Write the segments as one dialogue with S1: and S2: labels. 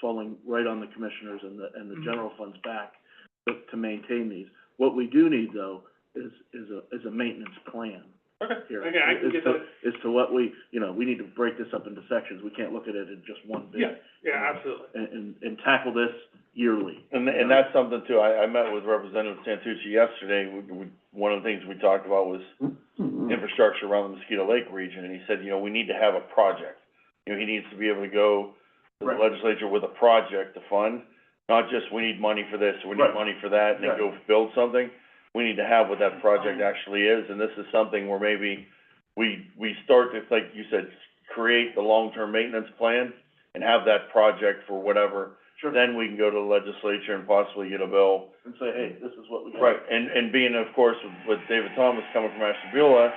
S1: falling right on the commissioners and the, and the
S2: Mhm.
S1: general funds back to, to maintain these. What we do need though is, is a, is a maintenance plan
S2: Okay,
S1: here.
S2: okay, I can
S1: As
S2: get
S1: to-
S2: that,
S1: As to what we, you know, we need to break this up into sections. We can't look at it in just one bid.
S2: yeah, yeah, absolutely.
S1: And, and, and tackle this yearly.
S3: And, and that's something too, I, I met with Representative Santucci yesterday, we, we, one of the things we talked about was Mm-hmm. infrastructure around the Mosquito Lake region, and he said, you know, we need to have a project. You know, he needs to be able to go to the
S1: Right.
S3: legislature with a project to fund, not just, we need money for this, we
S1: Right.
S3: need money for that, and then
S1: Right.
S3: go build something. We need to have what that project actually is, and this is something where maybe we, we start to, like you said, create the long-term maintenance plan and have that project for whatever
S1: Sure.
S3: then we can go to the legislature and possibly get a bill.
S1: And say, hey, this is what we got.
S3: And, and being, of course, with David Thomas coming from Ashtabula,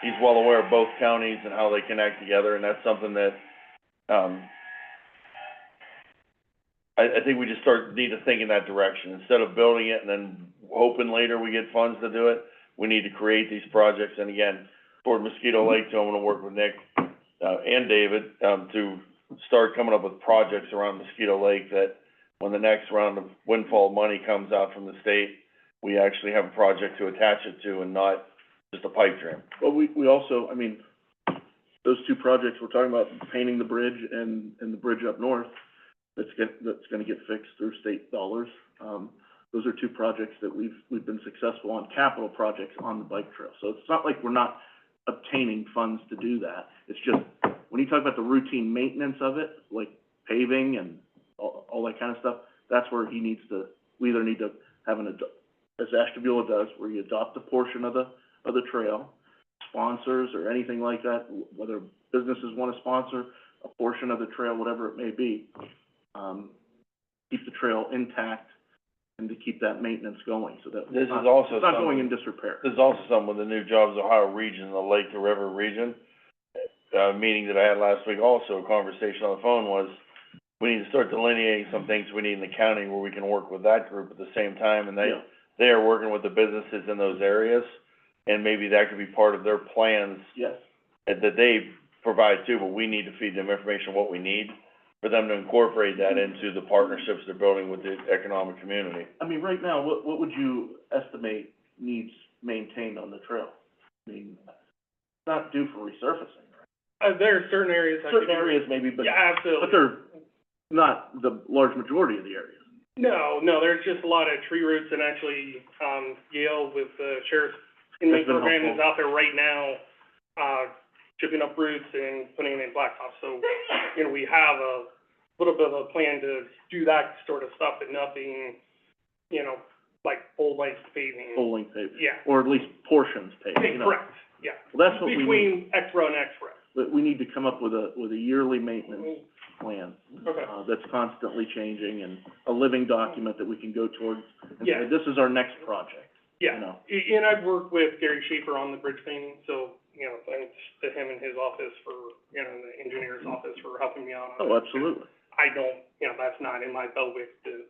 S3: he's well aware of both counties and how they connect together, and that's something that, um, I, I think we just start, need to think in that direction. Instead of building it and then hoping later we get funds to do it, we need to create these projects. And again, toward Mosquito Lake, too, I'm gonna work with Nick, uh, and David, um, to start coming up with projects around Mosquito Lake that when the next round of windfall money comes out from the state, we actually have a project to attach it to and not just a pipe dream.
S1: Well, we, we also, I mean, those two projects, we're talking about painting the bridge and, and the bridge up north, that's gonna, that's gonna get fixed through state dollars. Um, those are two projects that we've, we've been successful on, capital projects on the bike trail. So it's not like we're not obtaining funds to do that. It's just, when you talk about the routine maintenance of it, like paving and all, all that kind of stuff, that's where he needs to, we either need to have an, ado- as Ashtabula does, where you adopt a portion of the, of the trail, sponsors or anything like that, wh- whether businesses wanna sponsor a portion of the trail, whatever it may be, um, keep the trail intact and to keep that maintenance going, so that it's
S3: This is
S1: not,
S3: also
S1: it's not going in
S3: something-
S1: disrepair.
S3: There's also some with the new Jobs Ohio region, the Lake to River region. Uh, meeting that I had last week also, a conversation on the phone was, we need to start delineating some things we need in the county where we can work with that group at the same time, and they,
S1: Yeah.
S3: they are working with the businesses in those areas, and maybe that could be part of their plans
S1: Yes,
S3: that that they provide too, but we need to feed them information, what we need, for them to incorporate that into the partnerships they're building with the economic community.
S1: I mean, right now, what, what would you estimate needs maintained on the trail? I mean, it's not due for resurfacing, right?
S2: Uh, there are certain areas I could.
S1: Certain areas maybe, but,
S2: Yeah,
S1: but
S2: absolutely.
S1: they're not the large majority of the areas.
S2: No, no, there's just a lot of tree roots and actually, um, Yale with the sheriff's
S1: That's
S2: inmate
S1: been
S2: program is
S1: helpful.
S2: out there right now, uh, chipping up roots and putting in blacktop. So, you know, we have a little bit of a plan to do that sort of stuff, but nothing, you know, like full length paving.
S1: bowling paved,
S2: Yeah,
S1: or at least portions paved, you know.
S2: correct, yeah.
S1: Well, That's what we need,
S2: Between X row and X row.
S1: but we need to come up with a, with a yearly maintenance plan,
S2: Okay.
S1: uh, that's constantly changing and a living document that we can go towards. and say,
S2: Yeah.
S1: This is our next project, you
S2: Yeah,
S1: know.
S2: A- and I've worked with Gary Schaefer on the bridge thing, so, you know, thanks to him and his office for, you know, the engineer's office for helping me out on
S1: Oh,
S2: it.
S1: absolutely.
S2: I don't, you know, that's not in my bailiwick to.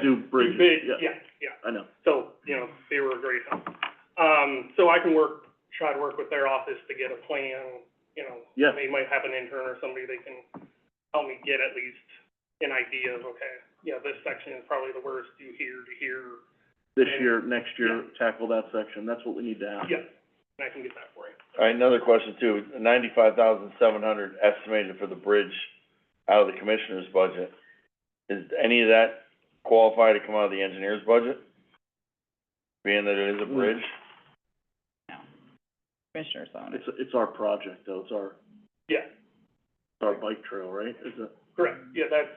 S1: Do bridges,
S2: big-
S1: yeah.
S2: Yeah, yeah,
S1: I know.
S2: so, you know, they were a great help. Um, so I can work, try to work with their office to get a plan, you know.
S1: Yeah.
S2: They might have an intern or somebody they can help me get at least an idea of, okay, yeah, this section is probably the worst, do here, do here,
S1: This
S2: And-
S1: year, next year, tackle that section, that's what we need to have.
S2: yeah, and I can get that for you.
S3: All right, another question too, ninety-five thousand seven hundred estimated for the bridge out of the commissioner's budget. Is any of that qualify to come out of the engineer's budget? Being that it is a bridge?
S4: commissioners on it.
S1: It's, it's our project though, it's our,
S2: Yeah,
S1: it's our bike trail, right? Is it,
S2: correct, yeah, that's,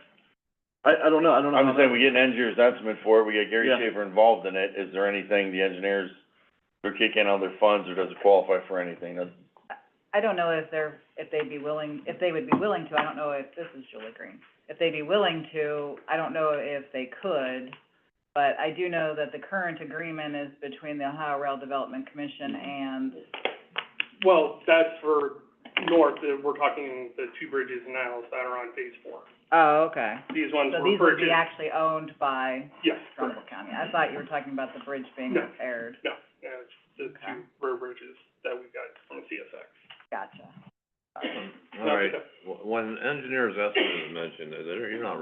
S1: I, I don't know, I don't know.
S3: I'm
S1: how
S3: just saying,
S1: that-
S3: we get an engineer's estimate for it, we get Gary
S1: Mm. Yeah.
S3: Schaefer involved in it, is there anything the engineers, they're kicking out of their funds, or does it qualify for anything? That's-
S4: I don't know if they're, if they'd be willing, if they would be willing to, I don't know if, this is Julie Green. If they'd be willing to, I don't know if they could, but I do know that the current agreement is between the Ohio Rail Development Commission and,
S2: well, that's for north, uh, we're talking the two bridges now that are on phase four.
S4: oh, okay.
S2: These ones
S4: So
S2: were
S4: these would be
S2: purchased,
S4: actually owned by
S2: yes, correct,
S4: Trumbull County. I thought you were talking about the bridge being
S2: No.
S4: repaired.
S2: no, uh, it's the two
S4: Okay.
S2: road bridges that we got from CSX.
S4: Gotcha.
S5: All right, w- when engineer's estimate is mentioned, uh, they're- you're not